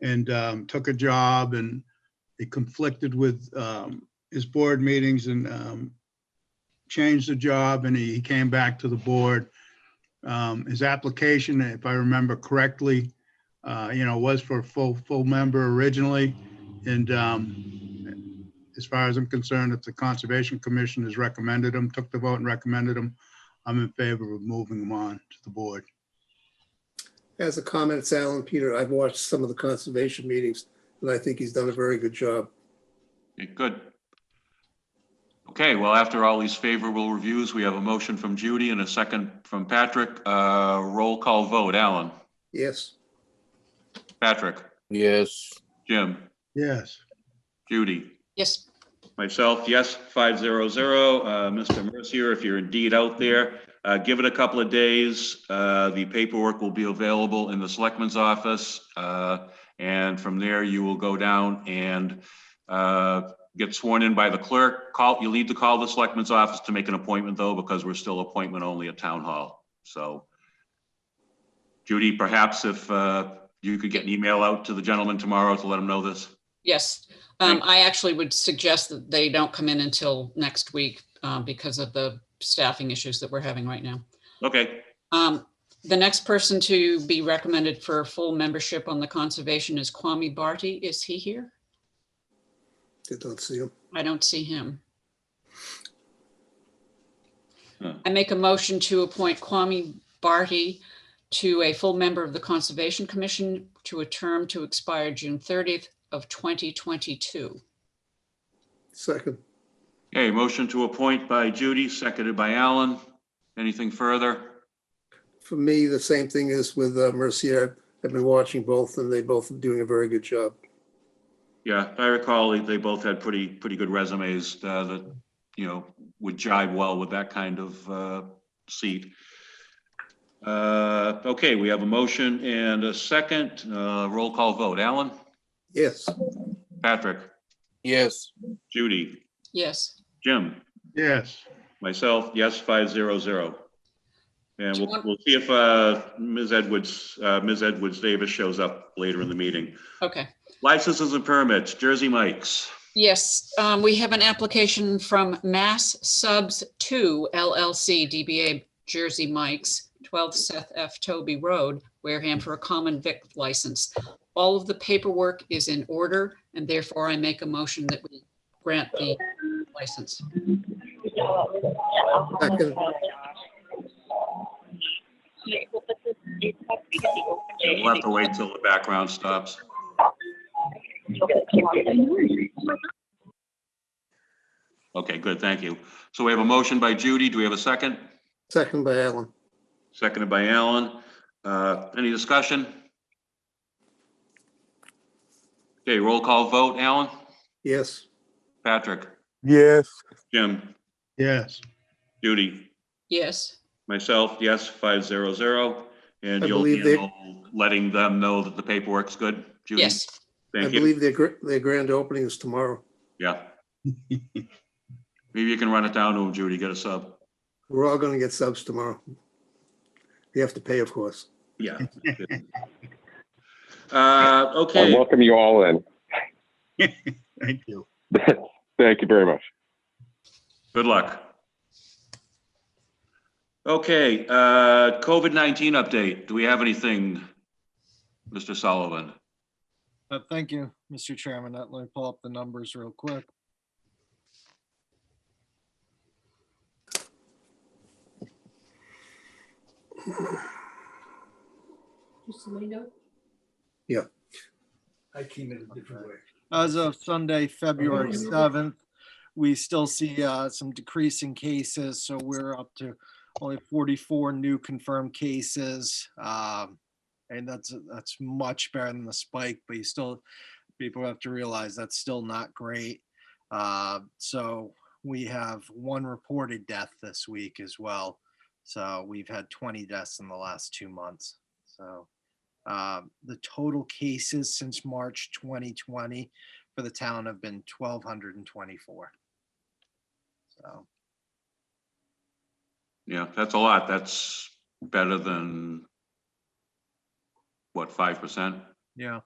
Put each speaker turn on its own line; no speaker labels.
and um, took a job and it conflicted with um, his board meetings and um, changed the job and he came back to the board. Um, His application, if I remember correctly, uh, you know, was for a full, full member originally. And um, as far as I'm concerned, if the Conservation Commission has recommended him, took the vote and recommended him, I'm in favor of moving him on to the board.
As a comment, it's Alan Peter. I've watched some of the conservation meetings and I think he's done a very good job.
Okay, Good. Okay, well, after all these favorable reviews, we have a motion from Judy and a second from Patrick. Uh, Roll call vote. Alan?
Yes,
Patrick?
Yes,
Jim?
Yes.
Judy?
Yes,
Myself, yes, 500. Uh, Mr. Mercier, if you're indeed out there, uh, give it a couple of days. Uh, The paperwork will be available in the selectman's office. uh, And from there, you will go down and uh, get sworn in by the clerk. Call, you'll need to call the selectman's office to make an appointment, though, because we're still appointment only at town hall. So Judy, perhaps if uh, you could get an email out to the gentleman tomorrow to let him know this.
yes. Um, I actually would suggest that they don't come in until next week, uh, because of the staffing issues that we're having right now.
Okay,
Um, the next person to be recommended for full membership on the conservation is Kwame Barty. Is he here?
did not see him.
I don't see him.
Hmm.
I make a motion to appoint Kwame Barty to a full member of the Conservation Commission to a term to expire June thirtieth of twenty twenty-two.
Second,
Okay, motion to appoint by Judy, seconded by Alan. Anything further?
for me, the same thing is with uh, Mercier. I've been watching both and they both are doing a very good job.
Yeah, I recall they- they both had pretty, pretty good resumes uh, that, you know, would jive well with that kind of uh, seat. Uh, Okay, we have a motion and a second. Uh, Roll call vote. Alan?
Yes,
Patrick?
yes,
Judy?
Yes.
Jim?
Yes.
Myself, yes, 500. And
Do you
we'll,
want-
we'll see if uh, Ms. Edwards, uh, Ms. Edwards Davis shows up later in the meeting.
Okay.
Licenses and permits, Jersey Mike's.
Yes, um, we have an application from Mass Subs Two LLC DBA Jersey Mike's, twelve Seth F. Toby Road, Wareham for a common vic license. All of the paperwork is in order and therefore I make a motion that we grant the license.
second,
We'll have to wait till the background stops. Okay, good, thank you. So we have a motion by Judy. Do we have a second?
second by Alan.
Seconded by Alan. Uh, Any discussion? Okay, roll call vote. Alan?
Yes,
Patrick?
yes,
Jim?
Yes.
Judy?
Yes,
Myself, yes, 500. And
I
you'll
believe they-
handle letting them know that the paperwork's good, Judy?
yes,
I
Thank you.
believe their, gr- their grand opening is tomorrow.
Yeah. Maybe you can run it down to him, Judy, get a sub.
We're all going to get subs tomorrow. You have to pay, of course.
Yeah. Uh,
I
okay,
welcome you all in.
Thank you.
Thank you very much.
good luck. Okay, uh, COVID-19 update. Do we have anything, Mr. Sullivan?
Uh, Thank you, Mr. Chairman. Uh, Let me pull up the numbers real quick.
I came in a different way.
As of Sunday, February 7th, we still see uh, some decreasing cases, so we're up to only 44 new confirmed cases. um, And that's, that's much better than the spike, but you still, people have to realize that's still not great. Uh, So we have one reported death this week as well. So we've had 20 deaths in the last two months. So uh, the total cases since March 2020 for the town have been 1,224. So,
Yeah, that's a lot. That's better than, what, 5%?
yeah,